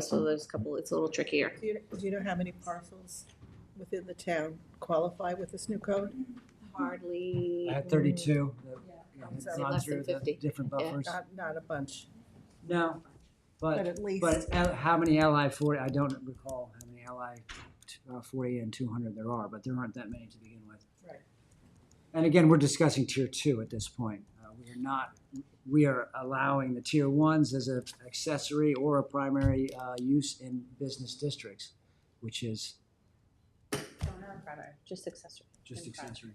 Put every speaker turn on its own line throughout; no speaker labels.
So there's a couple, it's a little trickier.
Do you, do you know how many parcels within the town qualify with this new code?
Hardly.
I had thirty-two. that- yeah, had
So
gone
less than
through the
50.
Different buffers.
Not, not a bunch,
No,
but
but,
at least,
but L- how many LI forty, I don't recall how many LI t- uh, forty and two hundred there are, but there aren't that many to begin with.
Right.
And again, we're discussing tier two at this point. Uh, we are not, we are allowing the tier ones as a accessory or a primary, uh, use in business districts, which is
Just accessory.
just
In fact.
accessory.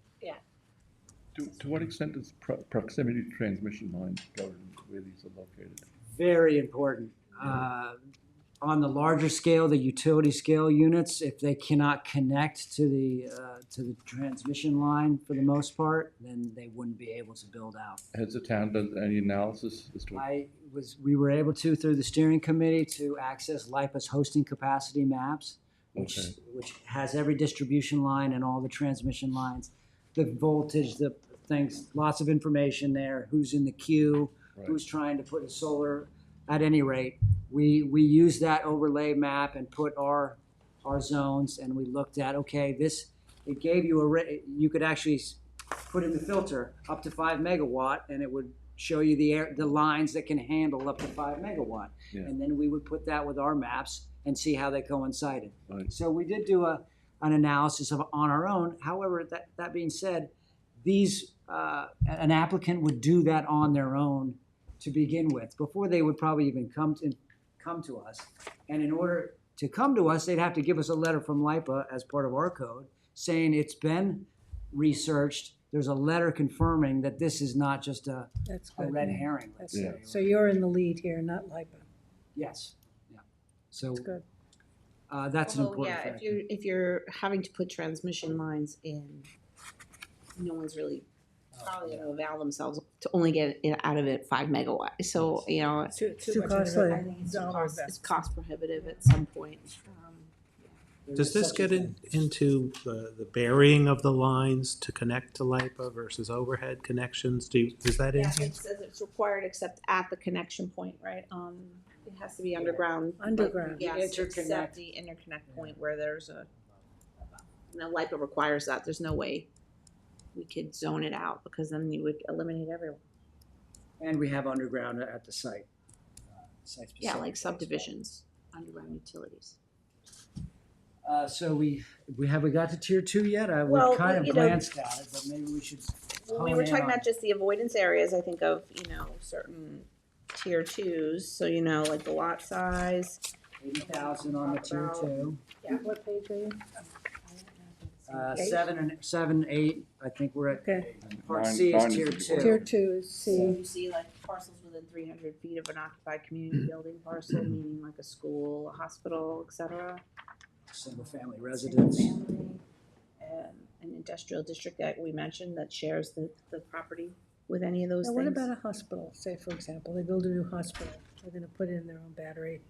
To, to what extent is pro- proximity to transmission lines governed where these are located?
very important. Uh, On the larger scale, the utility scale units, if they cannot connect to the, uh, to the transmission line for the most part, then they wouldn't be able to build out.
Has the town done any analysis as to,
I was, we were able to, through the steering committee, to access LIPA's hosting capacity maps, which,
Okay.
which has every distribution line and all the transmission lines, the voltage, the things, lots of information there, who's in the queue,
Right.
who's trying to put a solar, at any rate. We, we used that overlay map and put our, our zones, and we looked at, okay, this, it gave you a, ra- you could actually s- put in the filter up to five megawatt, and it would show you the air, the lines that can handle up to five megawatt.
Yeah.
And then we would put that with our maps and see how they coincided.
Right.
So we did do a, an analysis of, on our own. However, that, that being said, these, uh, an applicant would do that on their own to begin with, before they would probably even come to, come to us. And in order to come to us, they'd have to give us a letter from LIPA as part of our code, saying it's been researched. There's a letter confirming that this is not just a,
That's
a
good.
red herring. let's
That's
say,
Yeah.
good.
or-
So you're in the lead here, not LIPA.
Yes, yeah. So,
That's good.
uh, that's an
Although,
important
yeah, if
factor.
you're, if you're having to put transmission lines in, no one's really
Oh,
probably gonna avail themselves to only get it out of it five megawatt. So, you know,
too,
too
too much.
costly.
I think it's
Dollar
cost, it's
investment.
cost prohibitive at some point. Um,
There's
Does this
such a
get in,
thing.
into the, the burying of the lines to connect to LIPA versus overhead connections? Do, you- is that in?
Yeah,
here?
it says it's required except at the connection point, right? Um, it has to be underground. like,
Underground.
Yes,
Interconnect.
except the interconnect point where there's a, no, LIPA requires that. There's no way we could zone it out because then you would eliminate everyone.
And we have underground at the site. uh, site-specific
Yeah, like
as well.
subdivisions, underground utilities.
Uh, so we, we, have we got to tier two yet? I, we
Well,
kind of
you know-
glanced at it, but maybe we should.
Well, we
hone
were
in
talking
on-
about just the avoidance areas, I think of, you know, certain tier twos, so you know, like the lot size.
Eighty thousand on the tier
About-
two,
What page are you?
uh, seven and, seven, eight, I think we're at,
Okay.
part
Mine-
C
mine
is
is
tier
the
two.
Tier two is C.
You see like parcels within three hundred feet of an occupied community building parcel, meaning like a school, a hospital, et cetera.
Single family residence,
Single-family, um, An industrial district that we mentioned that shares the, the property with any of those
Now, what
things.
about a hospital? Say, for example, they build a new hospital, they're gonna put in their own battery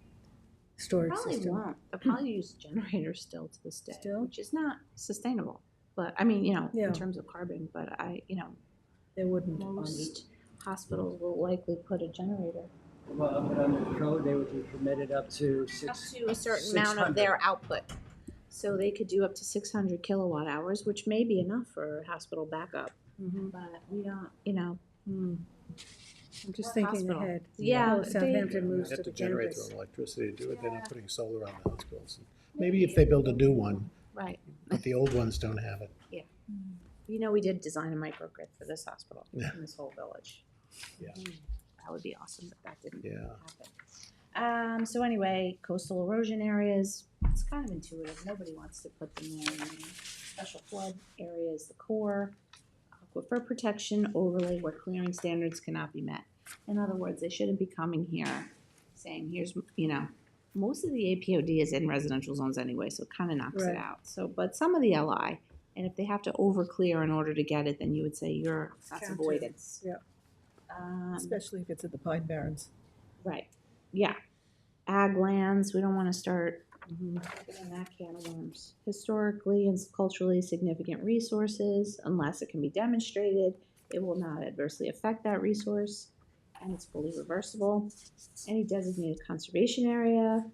storage
Probably
system.
won't, they'll probably use generators still to this day,
Still?
which is not sustainable. But, I mean, you know,
Yeah.
in terms of carbon, but I, you know,
They wouldn't. on the-
most hospitals will likely put a generator.
well, but under the code, they would be permitted up to
Up
six.
to a certain amount of
600.
their output. So they could do up to six hundred kilowatt hours, which may be enough for hospital backup,
Mhm.
but we don't, you know,
Hmm. I'm just
Or
thinking
hospital.
ahead.
Yeah,
Well,
they-
Southampton moves to the
generate
campus.
electricity to do
it, they're not Yeah.
putting solar on the hospitals. Maybe if they build a new one,
right.
but the old ones don't have it.
You know, we did design a microgrid for this hospital
Yeah.
in this whole village. Mm,
Yeah.
That would be awesome, but that didn't
Yeah.
happen. Um, so anyway, coastal erosion areas, it's kind of intuitive, nobody wants to put them in. Special flood areas, the core, aquifer protection overlay where clearing standards cannot be met. In other words, they shouldn't be coming here saying, here's, you know, most of the APOD is in residential zones anyway, so it kind of knocks it
Right.
out. So, but some of the LI, and if they have to overclear in order to get it, then you would say you're, that's
Counted.
avoidance.
Yep.
Um,
especially if it's in the Pine Barrens.
Right, yeah. Ag lands, we don't wanna start opening that can of worms. Historically and culturally significant resources, unless it can be demonstrated, it will not adversely affect that resource, and it's fully reversible. Any designated conservation area,